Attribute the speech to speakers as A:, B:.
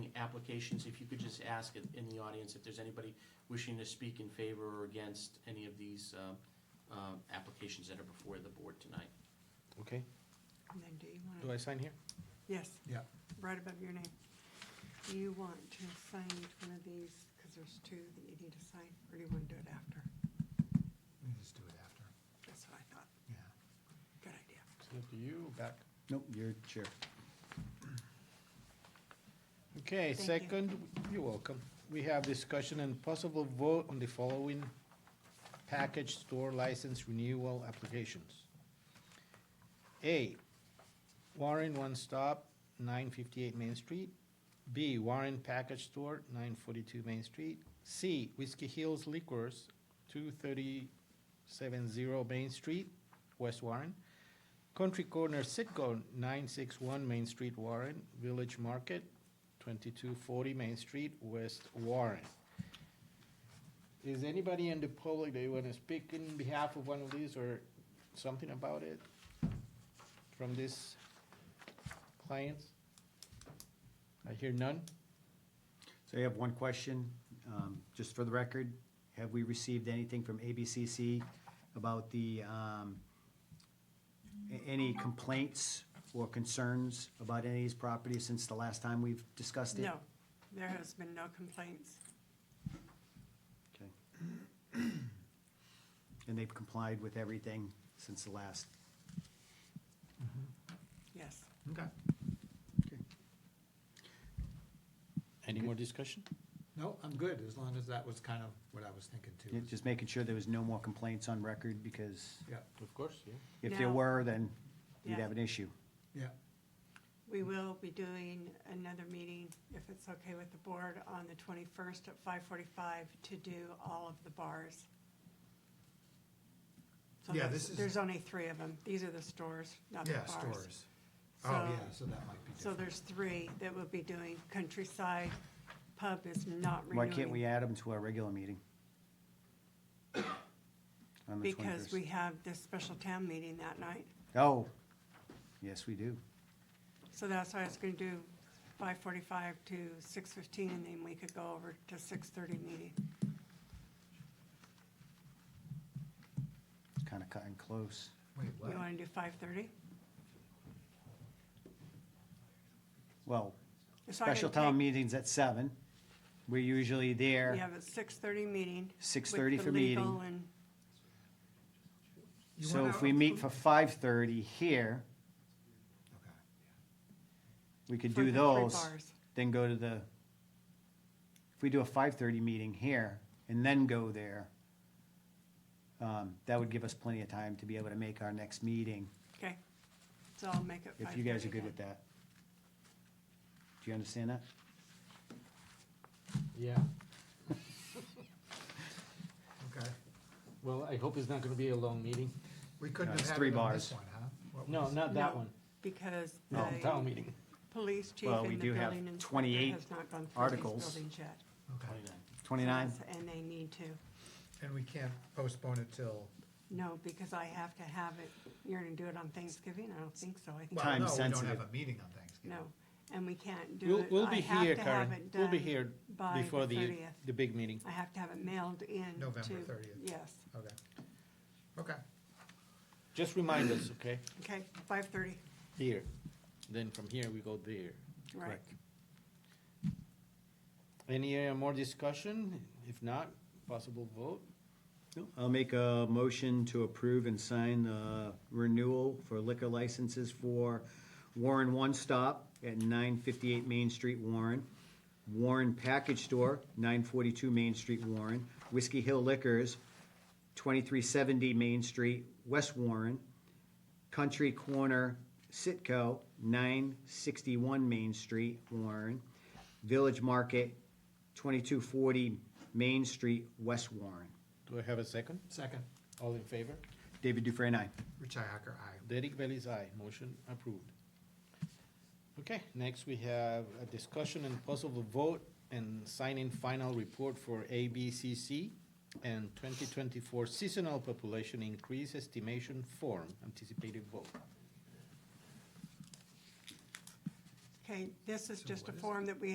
A: applications, if you could just ask it in the audience if there's anybody wishing to speak in favor or against any of these uh, uh, applications that are before the board tonight.
B: Okay,
C: And then do you
B: do
C: want,
B: I sign here?
C: yes,
D: Yeah.
C: right above your name. Do you want to sign each one of these, because there's two that you need to sign, or do you want to do it after?
D: We can just do it after,
C: That's what I thought.
D: yeah.
C: Good idea.
B: It's up to you, back.
E: Nope, you're chair.
B: Okay,
C: Thank you.
B: second, you're welcome. We have discussion and possible vote on the following package store license renewal applications. A, Warren One Stop, nine fifty-eight Main Street. B, Warren Package Store, nine forty-two Main Street. C, Whiskey Hills Liquors, two thirty-seven zero Main Street, West Warren. Country Corner Sitco, nine six one Main Street, Warren. Village Market, twenty-two forty Main Street, West Warren. Is anybody in the public that want to speak in behalf of one of these or something about it from these clients? I hear none.
E: So I have one question, um, just for the record. Have we received anything from ABCC about the, um, a- any complaints or concerns about any of these properties since the last time we've discussed it?
C: No, there has been no complaints.
E: Okay. And they've complied with everything since the last?
C: Yes.
E: Okay.
B: Any more discussion?
D: No, I'm good, as long as that was kind of what I was thinking too. is-
E: Just making sure there was no more complaints on record, because
D: Yeah,
B: Of course, yeah.
E: if there
C: No.
E: were, then you'd
C: Yeah.
E: have an issue.
D: yeah, Mm.
C: We will be doing another meeting, if it's okay with the board, on the 21st at 5:45 to do all of the bars. So
D: Yeah,
C: there's-
D: this is-
C: There's only three of them. These are the stores, not the
D: yeah,
C: bars.
D: stores. Oh,
C: So-
D: yeah, so that might be
C: So
D: different.
C: there's three that will be doing countryside. Pub is not renewing.
E: Why can't we add them to our regular meeting? On the
C: Because
E: 21st.
C: we have this special town meeting that night.
E: Oh, yes, we do.
C: So that's why I was gonna do five forty-five to six fifteen, and then we could go over to six thirty meeting.
E: It's kind of cutting close.
D: Wait,
C: You
D: what?
C: wanna do five thirty?
E: Well, special town meeting's at seven. We're usually
C: We
E: there.
C: have a six thirty meeting. with
E: 6:30
C: the
E: for meeting.
C: legal and-
D: You
E: So
D: wanna-
E: if we meet for 5:30 here,
D: Okay.
E: we could
C: for
E: do
C: the three
E: those,
C: bars.
E: then go to the, if we do a 5:30 meeting here and then go there, um, that would give us plenty of time to be able to make our next meeting,
C: Okay, so I'll make it.
E: if you guys
C: 5:30
E: are good
C: then.
E: with that. Do you understand that?
B: Yeah,
D: Okay,
B: well, I hope it's not gonna be a long meeting.
D: we
E: No,
D: couldn't have
E: it's
D: had
E: three
D: it on this
E: bars.
D: one, huh? What
B: No,
D: was-
B: not that
C: No.
B: one,
C: Because
B: No, town
C: the
B: meeting.
C: police chief
E: Well,
C: and
E: we
C: the
E: do have
C: building inspector
E: 28
C: has not gone through these
E: articles.
C: buildings yet.
D: Okay,
A: 29.
E: 29?
C: And they need to.
D: and we can't postpone it till,
C: No, because I have to have it, you're gonna do it on Thanksgiving? I don't think so. I think,
D: well,
E: Time
D: no, we don't
E: sensitive.
D: have a meeting on Thanksgiving.
C: no, and we can't do
B: We'll,
C: it.
B: we'll
C: I
B: be
C: have
B: here,
C: to have
B: Karen,
C: it
B: we'll be
C: done.
B: here
C: by the
B: before the,
C: 30th.
B: the big meeting.
C: I have to have it mailed in.
D: November
C: to-
D: 30th.
C: Yes,
D: Okay, okay,
B: Just remind us, okay?
C: okay, five thirty,
B: Here, then from here we go there.
C: right.
B: Correct. Any uh, more discussion? If not, possible vote?
E: I'll make a motion to approve and sign the renewal for liquor licenses for Warren One Stop at nine fifty-eight Main Street, Warren. Warren Package Store, nine forty-two Main Street, Warren. Whiskey Hill Liquors, twenty-three seventy Main Street, West Warren. Country Corner Sitco, nine sixty-one Main Street, Warren. Village Market, twenty-two forty Main Street, West Warren.
B: Do I have a second?
D: second,
B: All in favor?
E: David Dufresne, aye.
D: Richi Hacker, aye.
B: Derek Bailey's aye. Motion approved. Okay, next we have a discussion and possible vote and signing final report for ABCC and twenty twenty-four seasonal population increase estimation form, anticipated vote.
C: Okay, this is just a
D: what is it?
C: form that we